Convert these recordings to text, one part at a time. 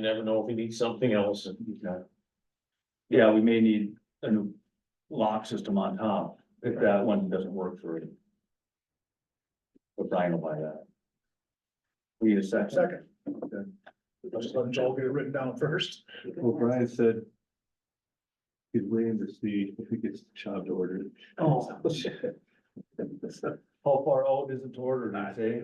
never know if we need something else. Okay. Yeah, we may need a new lock system on top if that one doesn't work for it. But Brian will buy that. We need a second. Second. Just let Joel get it written down first. Well, Brian said. He's waiting to see if he gets job ordered. Oh, How far out is it toward or not? Say,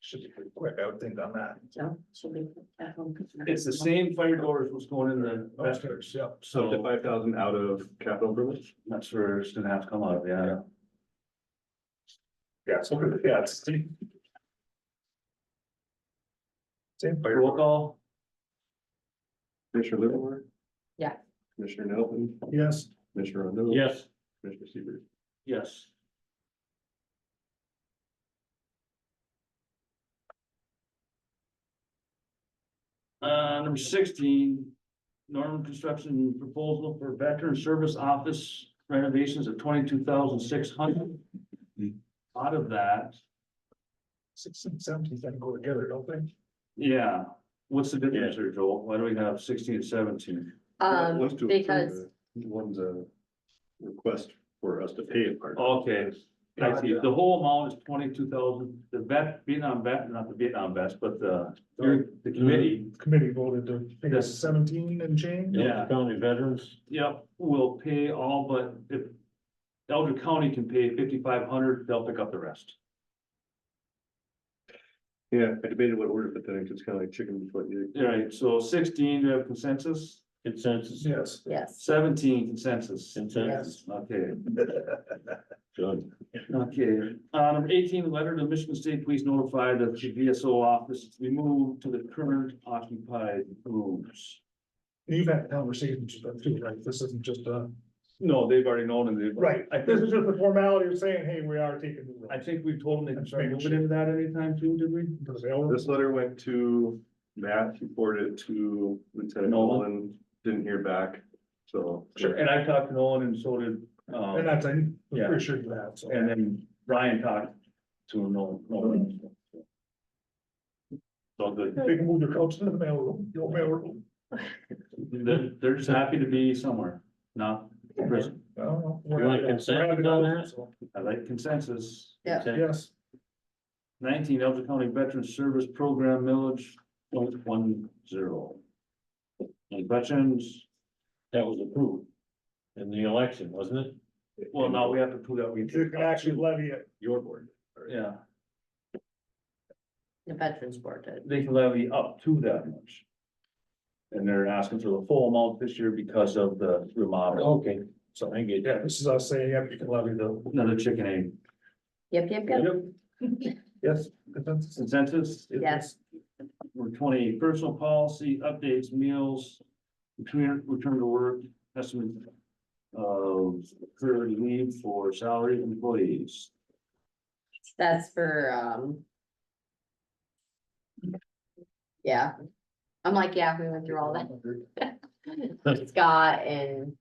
Should be pretty quick, I would think on that. So she'll be at home. It's the same fire doors was going in the Investors, yeah. So the so five thousand out of capital improvement? that's where it's gonna have to come out, of, yeah. Yeah, so, yeah, it's. the Same fire. Roll call, Commissioner Livermore? Yeah. Commissioner Nelson, Yes, Commissioner Rondo? Yes, Commissioner Seaver? yes. Uh, number sixteen, Norman Construction Proposal for Veteran Service Office renovations of twenty-two thousand six hundred. Out of that, six and seventeen then go together, don't they? yeah, what's the difference there, Joel? Why do we have sixteen and seventeen? One's to approve Um, because, it, One's a request for us to pay a part. Okay, I see, the whole amount is twenty-two thousand, the vet, Vietnam vet, not the Vietnam vets, but the, the committee. Committee voted to, I think it's seventeen and change. Yeah. Delta County veterans, Yep, will pay all, but if Elder County can pay fifty-five hundred, they'll pick up the rest. Yeah, I debated what order, but then it's kind of like chicken before you. All right, so sixteen, do you have consensus? consensus, Yes. yes, Seventeen consensus. consensus, Okay, good. okay. Um, eighteen, letter to Michigan State Police notified that the VSO office is removed to the current occupied rooms. You've had conversations with them too, right? This isn't just a. No, they've already known and they've. Right, I think- this is just the formality of saying, hey, we are taking. the I road. think we told them they can start moving into that anytime soon, did we? Does they all- This letter went to Matt, he forwarded it to Lieutenant Nolan. Nolan, didn't hear back, so. And I talked to Nolan and so did, And um, that's, I'm Yeah. pretty sure you have, so. and then Brian talked to Nolan. Nolan. So good. They can move their couch to the mailroom, your mailroom. They're, they're just happy to be somewhere, not prison. I don't know. We're You like happy- consent we're happy to on help, that? so, I like consensus. Yeah. Consensus. Yes, Nineteen, Elder County Veteran Service Program millage, point one zero. Any questions? That was approved in the election, wasn't it? Well, now we have to prove that we. you can actually levy it. Your board. Yeah, the veterans board did. they can levy up to that much. And they're asking for the full amount this year because of the remodel. Okay, so I get Yeah, that. this is us saying, yeah, you can levy the, Another chicken egg. Yep, yep, yep. yes, consensus. Consensus? Yes. Number twenty, personal policy, updates, meals, return, return to work, estimate of current leave for salary employees. That's for, um. Yeah, I'm like, yeah, we went through all that. Scott and,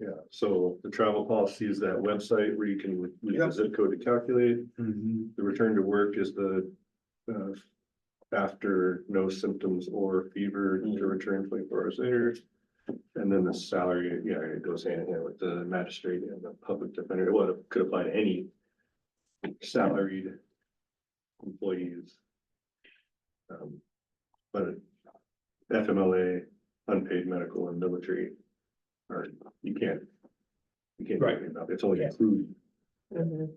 Yeah, so the travel policy is that website where you can leave the Yep. zip code to calculate. Mm-hmm. The return to work is the uh, after no symptoms or fever Mm. Mm-hmm. to return twenty-four hours later. And then the salary, yeah, it goes hand in hand with the magistrate and the public defender. Well, it could apply to any salaried employees. Um, But FMLA, unpaid medical and military, or you can't. You can't. do Right. anything about it. It's only Yeah. accrued. Mhm.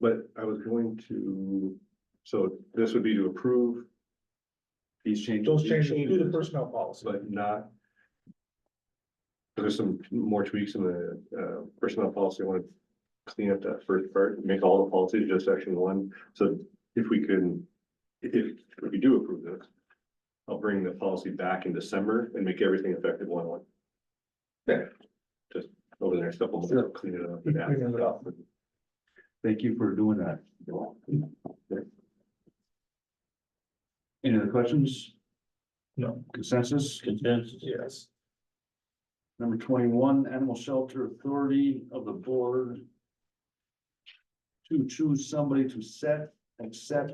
But I was going to, so this would be to approve, These changes. Those changes to the personnel policy. but not. There's some more tweaks in the uh personnel policy. I want to clean up that first part, make all the policies just section one. So if we can, if if we do approve this. I'll bring the policy back in December and make everything effective one one. Yeah. Just over the next couple of months, clean it up. Keep cleaning it up. Thank you for doing that. Any other questions? No. Consensus? Consensus, Yes. Number twenty-one, Animal Shelter Authority of the Board. To choose somebody to set, accept,